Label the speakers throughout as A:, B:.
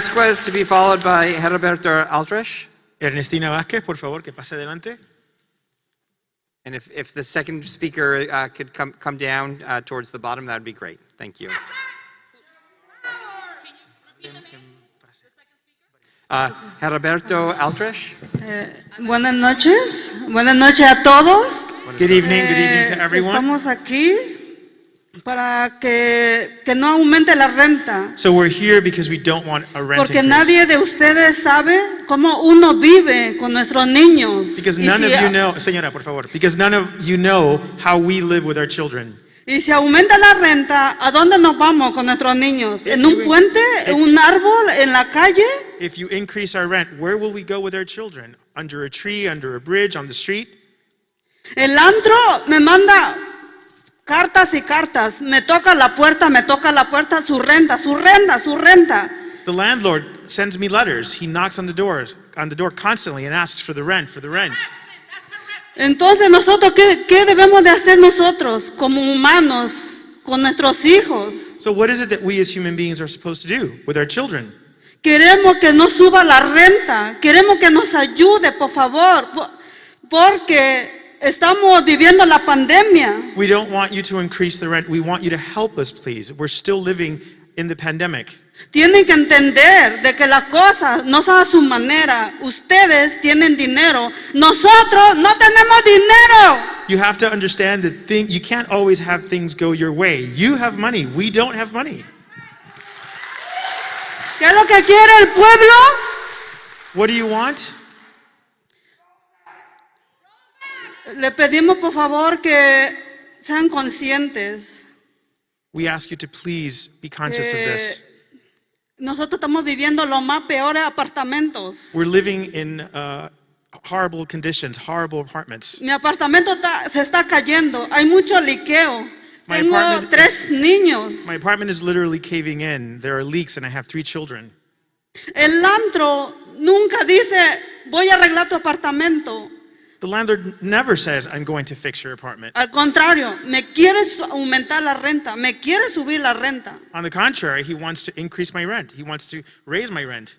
A: Vasquez to be followed by Heriberto Altres.
B: Ernestina Vázquez, por favor, que pase adelante.
A: And if, if the second speaker uh, could come, come down uh, towards the bottom, that'd be great. Thank you. Uh, Heriberto Altres.
C: Buenas noches, buenas noches a todos.
B: Good evening, good evening to
C: Eh,
B: everyone.
C: estamos aquí para que, que no aumente la renta,
B: So we're here because we don't want a rent
C: porque
B: increase.
C: nadie de ustedes sabe cómo uno vive con nuestros niños.
B: Because
C: Y
B: none
C: si-
B: of you know, señora, por favor, because none of you know how we live with our children.
C: Y si aumenta la renta, ¿a dónde nos vamos con nuestros niños?
B: If
C: ¿En
B: you
C: un
B: in-
C: puente?
B: if-
C: ¿En un árbol? ¿En la calle?
B: If you increase our rent, where will we go with our children? Under a tree, under a bridge, on the street?
C: El antro me manda cartas y cartas. Me toca la puerta, me toca la puerta, su renta, su renta, su renta.
B: The landlord sends me letters. He knocks on the doors, on the door constantly and asks for the rent, for the rent.
C: Entonces, nosotros, ¿qué, qué debemos de hacer nosotros como humanos con nuestros hijos?
B: So what is it that we as human beings are supposed to do with our children?
C: Queremos que nos suba la renta, queremos que nos ayude, por favor, po- porque estamos viviendo la pandemia.
B: We don't want you to increase the rent. We want you to help us, please. We're still living in the pandemic.
C: Tienen que entender de que las cosas no son a su manera. Ustedes tienen dinero, nosotros no tenemos dinero.
B: You have to understand that thing, you can't always have things go your way. You have money. We don't have money.
C: ¿Qué es lo que quiere el pueblo?
B: What do you want?
C: Le pedimos, por favor, que sean conscientes.
B: We ask you to please be conscious of
C: Eh,
B: this.
C: Nosotros estamos viviendo los más peores apartamentos.
B: We're living in uh, horrible conditions, horrible apartments.
C: Mi apartamento está- se está cayendo. Hay mucho liqueo.
B: My
C: Tengo
B: apartment
C: tres niños.
B: My apartment is literally caving in. There are leaks, and I have three children.
C: El antro nunca dice, voy a arreglar tu apartamento.
B: The landlord never says, I'm going to fix your apartment.
C: Al contrario, me quiere su- aumentar la renta, me quiere subir la renta.
B: On the contrary, he wants to increase my rent, he wants to raise my rent.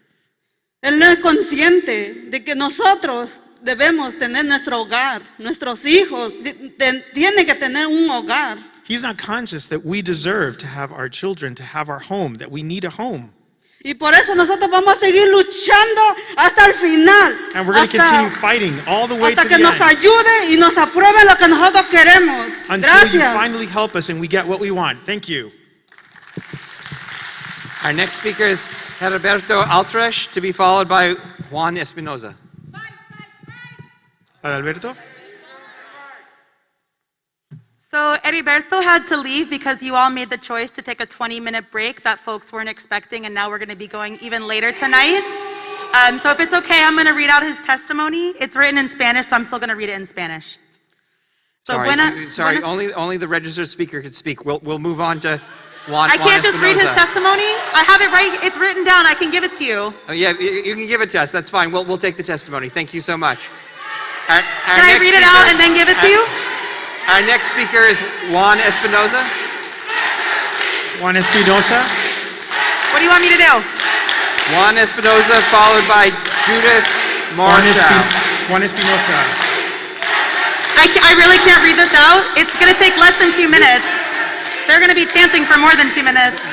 C: Él no es consciente de que nosotros debemos tener nuestro hogar, nuestros hijos di- ten- tienen que tener un hogar.
B: He's not conscious that we deserve to have our children, to have our home, that we need a home.
C: Y por eso nosotros vamos a seguir luchando hasta el final.
B: And we're going to
C: hasta,
B: continue fighting all the way
C: hasta
B: to the
C: que nos
B: end
C: ayude y nos apruebe lo que nosotros queremos.
B: until you
C: Gracias.
B: finally help us and we get what we want. Thank you.
A: Our next speaker is Heriberto Altres to be followed by Juan Espinoza.
B: Adalberto?
D: So Heriberto had to leave because you all made the choice to take a 20-minute break that folks weren't expecting, and now we're going to be going even later tonight. Um, so if it's okay, I'm going to read out his testimony. It's written in Spanish, so I'm still going to read it in Spanish. So
A: Sorry,
D: buena-
A: you- sorry.
D: buena-
A: only only the registered speaker could speak. We'll we'll move on to Juan.
D: I
A: Juan
D: can't just read his
A: Espinoza.
D: testimony. I have it right. It's written down. I can give it to you.
A: Oh, yeah, you, you can give it to us. That's fine. We'll we'll take the testimony. Thank you so much. Our, our
D: Can I
A: next
D: read it out
A: speaker-
D: and then give it to
A: our-
D: you?
A: Our next speaker is Juan Espinoza.
B: Juan Espinosa?
D: What do you want me to do?
A: Juan Espinoza, followed by Judith
B: Juan,
A: Marshall.
B: Espi- Juan Espinosa.
D: I, ca- I really can't read this out. It's going to take less than two minutes. They're going to be chanting for more than two minutes.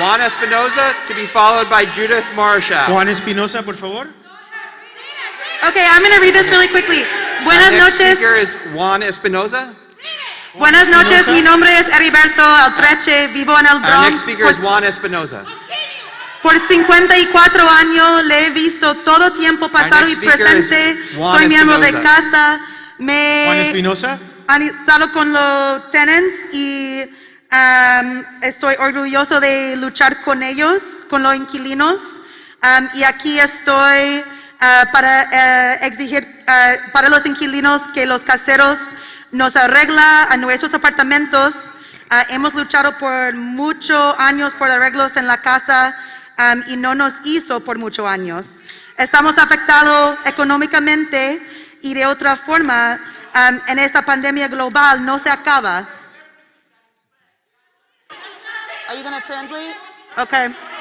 A: Juan Espinoza to be followed by Judith Marshall.
B: Juan Espinosa, por favor.
D: Okay, I'm going to read this really quickly.
A: Our
D: Buenas
A: next
D: noches.
A: speaker is Juan Espinoza.
D: Buenas noches.
B: Espinosa.
D: Mi nombre es Heriberto Altreche. Vivo en el
A: Our
D: Bronx.
A: next speaker is
D: Por-
A: Juan Espinoza.
D: Por 54 años le he visto todo tiempo pasado
A: next
D: y
A: speaker is
D: presente.
A: Juan
D: Soy miembro de
A: Espinosa.
D: casa.
B: Juan
C: Eh,
D: Me
B: Espinosa?
D: han estado con los tenants y um, estoy orgulloso de luchar con ellos, con los inquilinos. Um, y aquí estoy ah, para eh, exigir ah, para los inquilinos que los caseros nos arregla a nuestros apartamentos. Ah, hemos luchado por muchos años por arreglos en la casa um, y no nos hizo por muchos años. Estamos afectados económicamente y de otra forma um, en esta pandemia global no se acaba. Are you gonna translate? Okay.